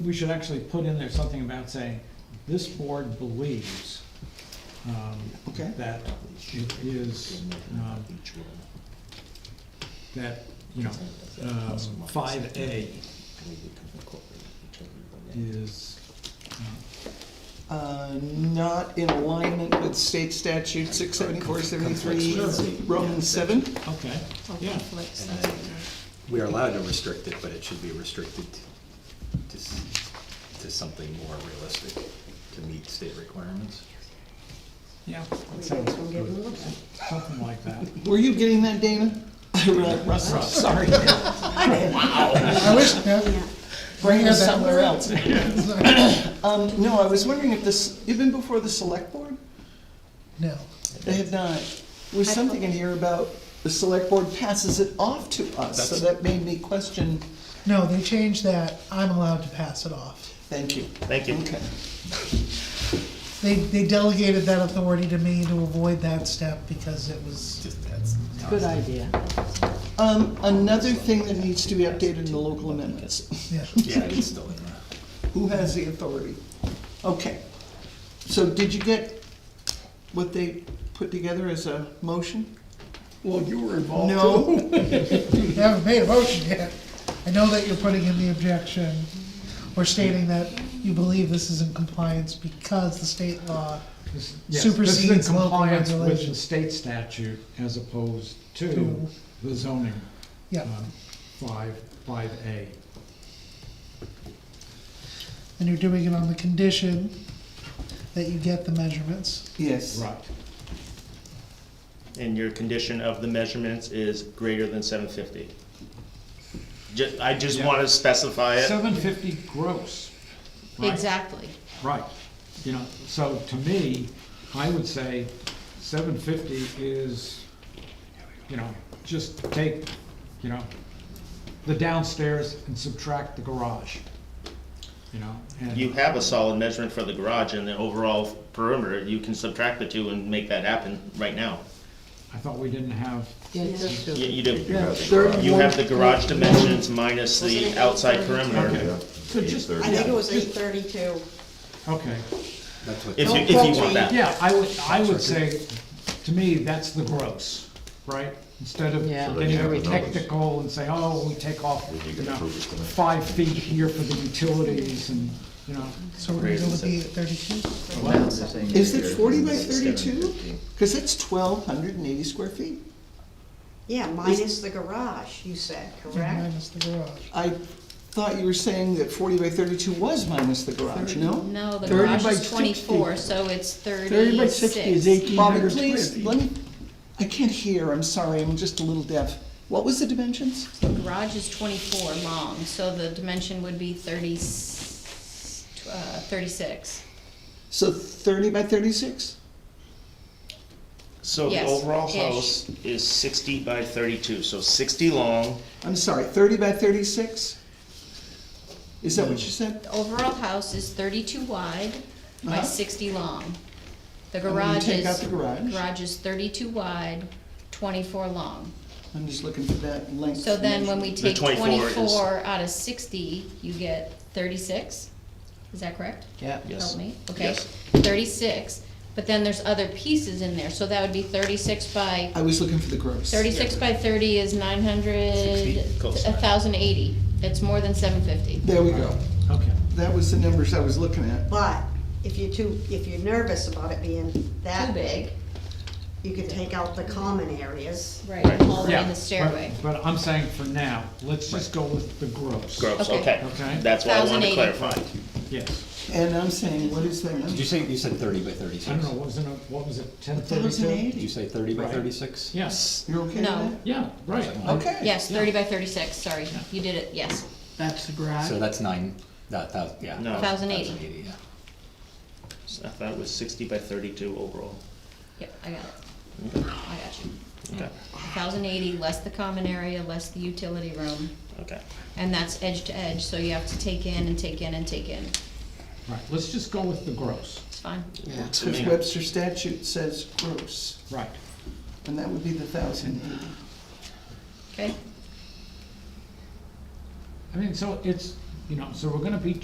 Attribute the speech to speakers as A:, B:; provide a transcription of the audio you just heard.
A: We should actually put in there something about saying, this board believes um,
B: Okay.
A: that it is, um, that, you know, um, five A is, uh,
B: Uh, not in alignment with state statute six seventy-four seventy-three,
C: Conflicts.
B: Roman seven.
A: okay, yeah.
D: conflicts,
C: And
D: that's
C: then- We are allowed to restrict it, but it should be restricted to, s- to something more realistic, to meet state requirements.
A: Yeah, that sounds
D: We'll get a little bit.
A: something like that.
B: Were you getting that, Dana? Russ,
A: Russ.
B: sorry.
E: I wish, yeah,
D: Yeah.
B: Bring us somewhere
E: Yeah.
B: else. Um, no, I was wondering if this, even before the select board,
E: no.
B: they had not, was
D: I
B: something in here about the select board passes it off to us, so
C: That's-
B: that made me question,
E: No, they changed that, I'm allowed to pass it off.
B: thank you.
F: Thank you.
B: Okay.
E: They, they delegated that authority to me to avoid that step because it was,
C: Just that's.
D: Good idea.
B: Um, another thing that needs to be updated in the local amendments,
E: yeah.
C: Yeah, it's still in there.
B: who has the authority? Okay, so did you get what they put together as a motion?
A: Well, you were involved
B: No,
E: You haven't made a motion yet. I know that you're putting in the objection or stating that you believe this is in compliance because the state law.
A: This- yes, this is in
E: Supersedes local
A: compliance With the
E: regulations.
A: state statute as opposed to the zoning,
E: Yeah,
A: um, five, five A.
E: and you're doing it on the condition that you get the measurements.
B: yes,
A: Right.
G: and your condition of the measurements is greater than seven fifty. Ju- I just
A: Yeah.
G: wanna specify it,
A: Seven fifty gross. right?
D: Exactly.
A: Right, you know, so to me, I would say seven fifty is, you know, just take, you know, the downstairs and subtract the garage, you know,
G: you
A: and,
G: have a solid measurement for the garage and the overall perimeter, you can subtract the two and make that happen right now.
A: I thought we didn't have,
G: You, you do,
B: thirty-one.
G: you have the garage dimensions minus the outside perimeter,
A: so just,
D: I think it was eight thirty-two.
A: okay,
C: That's what.
G: if you, if you want that.
A: yeah, I would, I would say, to me, that's the gross, right? Instead of
D: Yeah. So
A: getting very technical and say, oh, we take off, you know, five feet here for the utilities and, you know,
E: So we're gonna go with the thirty-two?
B: Is it forty by thirty-two? Cause it's twelve hundred and eighty square feet.
H: Yeah, minus the garage, you said, correct?
E: Minus the garage.
B: I thought you were saying that forty by thirty-two was minus the garage, no?
I: No, the
B: 30
I: garage
B: by
I: is
B: 60.
I: twenty-four, so it's thirty-six.
B: Thirty by sixty is eighteen hundred square feet. Bobby, please, let me, I can't hear, I'm sorry, I'm just a little deaf. What was the dimensions?
I: The garage is twenty-four long, so the dimension would be thirty, uh, thirty-six.
B: So thirty by thirty-six?
G: So the
I: Yes,
G: overall
I: ish.
G: house is sixty by thirty-two, so sixty long,
B: I'm sorry, thirty by thirty-six? Is that what you said?
I: The overall house is thirty-two wide by
B: Uh-huh.
I: sixty long. The
B: And when you
I: garage
B: Take out
I: is,
B: the garage?
I: garage is thirty-two wide, twenty-four long.
B: I'm just looking for that length.
I: So then when we
G: The
I: take
G: 24 is-
I: twenty-four out of sixty, you get thirty-six? Is that correct?
G: yes.
I: Help me, okay,
G: Yes.
I: thirty-six, but then there's other pieces in there, so that would be thirty-six by,
B: I was looking for the gross.
I: thirty-six by thirty is nine hundred,
G: Sixty, close
I: a
G: enough.
I: thousand eighty, it's more than seven fifty.
B: There we go.
A: okay.
B: That was the numbers I was looking at.
H: But if you're too, if you're nervous about it being
I: Too
H: that
I: big,
H: big, you could take out the common areas.
I: right, all the way
A: Yeah,
I: in the stairway.
A: But but I'm saying for now, let's just go with the gross.
G: Gross,
I: Okay.
G: okay,
A: Okay.
G: that's why I wanted to
I: 1080.
G: clarify.
A: Yes.
B: And I'm saying, what is that
C: Did
B: number?
C: you say, you said thirty by thirty-six?
A: I don't know, wasn't it, what was it, ten
B: Thousand
A: thirty-two?
C: Did you
B: eighty?
C: say thirty by
A: Right.
C: thirty-six?
A: Yes,
B: You're okay with
I: No.
B: that?
A: yeah, right.
B: Okay.
I: Yes,
A: Yeah.
I: thirty by thirty-six, sorry, you did it, yes,
C: So that's nine, that, that, yeah.
G: No.
I: thousand eighty,
C: 1080, yeah.
G: So I thought it was sixty by thirty-two overall.
I: yep, I got it, I got you.
G: Okay,
I: Thousand eighty, less the common area, less the utility room,
G: okay.
I: and that's edge to edge, so you have to take in and take in and take in,
A: Right, let's just go with the gross,
I: it's fine.
B: Because Webster statute says gross,
A: right.
B: and that would be the thousand eighty.
I: Okay.
A: I mean, so it's, you know, so we're gonna be